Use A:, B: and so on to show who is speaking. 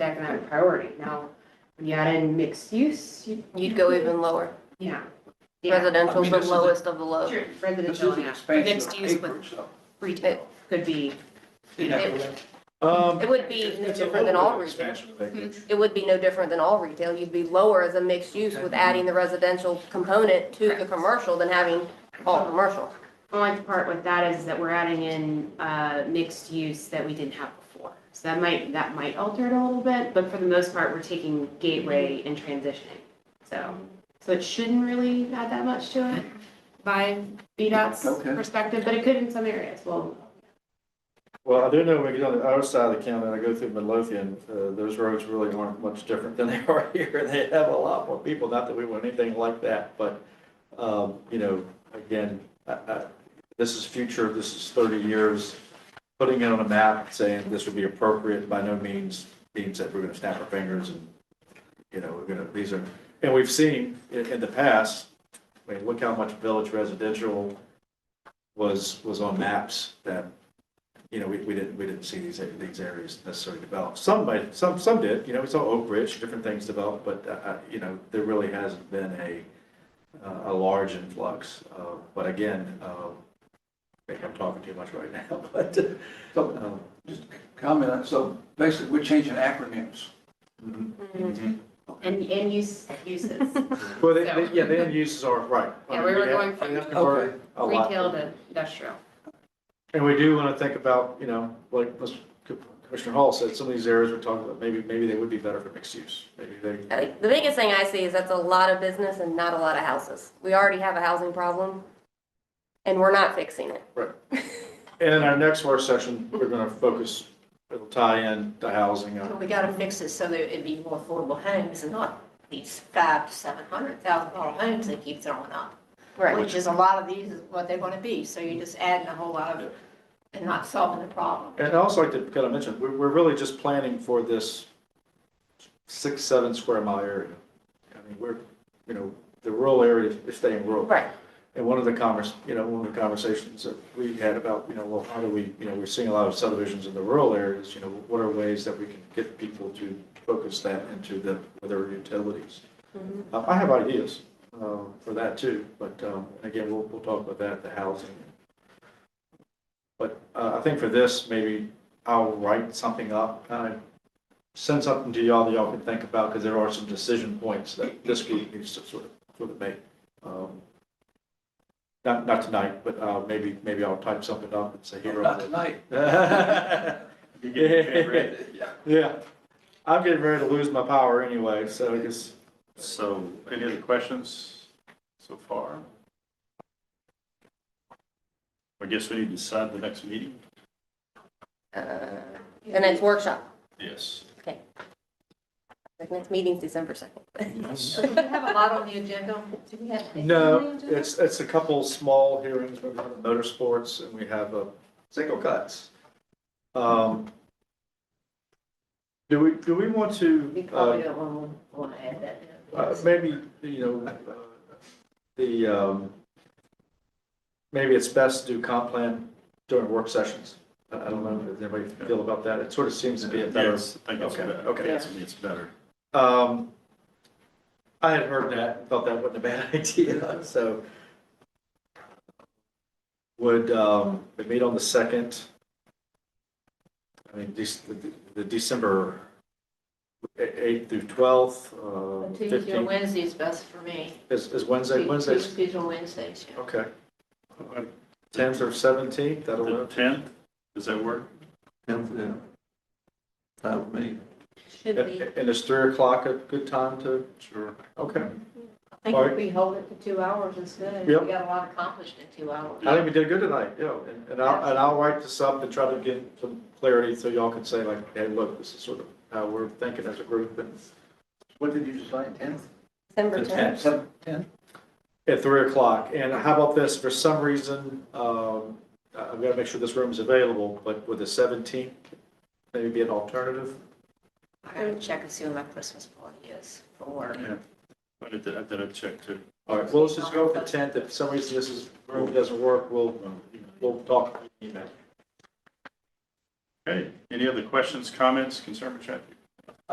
A: the economic priority. Now, when you add in mixed use, you,
B: You'd go even lower.
A: yeah. Yeah,
B: Residential's
C: I mean,
B: the
C: this is a-
B: lowest of the low.
A: Sure,
C: This
A: residential,
C: is an
A: yeah,
C: expansion
B: Mixed
C: of
B: use with-
C: acreage, so.
A: retail could be, you know,
D: Um,
B: It would be no different than all retail. It would be no different than all retail. You'd be lower as a mixed use with adding the residential component to the commercial than having all commercial.
A: only part with that is that we're adding in, uh, mixed use that we didn't have before. So that might, that might alter it a little bit, but for the most part, we're taking gateway and transitioning. So, so it shouldn't really add that much to it by VDOT's
C: Okay.
A: perspective, but it could in some areas. Well,
D: well, I do know when you get on the other side of the county, and I go through Midlothian, uh, those roads really aren't much different than they are here. They have a lot more people, not that we want anything like that, but, um, you know, again, I, I, this is future, this is thirty years. Putting it on a map, saying this would be appropriate by no means means that we're gonna snap our fingers and, you know, we're gonna, these are, and we've seen in, in the past, I mean, look how much village residential was, was on maps that you know, we, we didn't, we didn't see these, these areas necessarily develop. Some might, some, some did, you know, we saw Oak Ridge, different things developed, but, uh, uh, you know, there really hasn't been a, uh, a large influx. Uh, But again, uh, maybe I'm talking too much right now, but,
C: So,
D: um,
C: just comment, on- so basically, we're changing acronyms.
A: and, and use, uses.
D: well, they, they- yeah, the end uses are, right. I
A: Yeah,
D: mean,
A: we were
D: have-
A: going from
D: we have to convert a lot.
A: Retail to industrial.
D: And we do want to think about, you know, like Mr. Commissioner Hall said, some of these areas we're talking about, maybe, maybe they would be better for mixed use. Maybe they,
B: I think Uh, The biggest thing I see is that's a lot of business and not a lot of houses. We already have a housing problem and we're not fixing it.
D: Right. And in our next work session, we're gonna focus, it'll tie in to housing. uh,
E: Well, We gotta fix it so that it'd be more affordable homes and not these five to seven hundred thousand dollar homes they keep throwing up. Which is a lot of these is what they're gonna be, so you're just adding a whole lot of, and not solving the problem.
D: And I also like to kind of mention, we're, we're really just planning for this six, seven square mile area. I mean, we're, you know, the rural area is staying rural.
B: Right.
D: And one of the convers, you know, one of the conversations that we had about, you know, well, how do we, you know, we're seeing a lot of subdivisions in the rural areas, you know, what are ways that we can get people to focus that into the, with their utilities? Uh, I have ideas, uh, for that too, but, um, again, we'll, we'll talk about that, the housing. But, uh, I think for this, maybe I'll write something up, kind of send something to y'all that y'all can think about, because there are some decision points that this group needs to sort of, sort of make. Um, not, not tonight, but uh, maybe, maybe I'll type something up and say here.
C: Not tonight.
D: Yeah, yeah. I'm getting ready to lose my power anyway, so I guess,
F: So any other questions so far? I guess we need to decide the next meeting?
B: Uh, The next workshop,
F: Yes.
B: the next meeting's December 2nd.
E: Do we have a lot on the agenda? Do we have?
D: no, it's, it's a couple small hearings, we have motorsports and we have a single cuts. Um, Do we, do we want
E: We
D: to, uh,
E: probably don't wanna, wanna add that. in.
D: Uh, Maybe, you know, uh, the, um, maybe it's best to do comp plan during work sessions. I I don't know if anybody feel about that. It sort of seems to be a better.
F: Yes, I think it's
D: Okay,
F: better.
D: okay.
F: Yes, I mean, it's better.
D: Um, I had heard that, thought that wasn't a bad idea, so. Would, um, we meet on the second? I mean, this, the- the December eighth through twelfth, uh,
E: Tuesday or
D: fifteenth,
E: Wednesday is best for me.
D: is, is Wednesday,
E: Tu-
D: Wednesday's
E: Tuesdays or Wednesdays, yeah.
D: Okay. Tenth or seventeenth, that'll
F: The
D: work.
F: tenth, does that work?
C: That would be.
E: Should be,
D: And is three o'clock a good time to,
F: Sure.
D: okay.
E: I think if we hold it to two hours instead, we
D: Yep.
E: got a lot accomplished in two hours.
D: I think we did good tonight, you know, and- and I'll, and I'll write this up and try to get some clarity so y'all can say like, hey, look, this is sort of how we're thinking as a group and
C: What did you decide, ten?
B: December 10th.
C: Seven, ten?
D: at three o'clock. And how about this, for some reason, um, I- I've got to make sure this room is available, but with the seventeenth, maybe be an alternative?
E: I gotta check and see when my Christmas party is for work.
F: I did, I did a check too.
D: All right, well, let's just go for tenth. If for some reason this is, room doesn't work, we'll, we'll talk. email.
F: Okay, any other questions, comments, concern with traffic?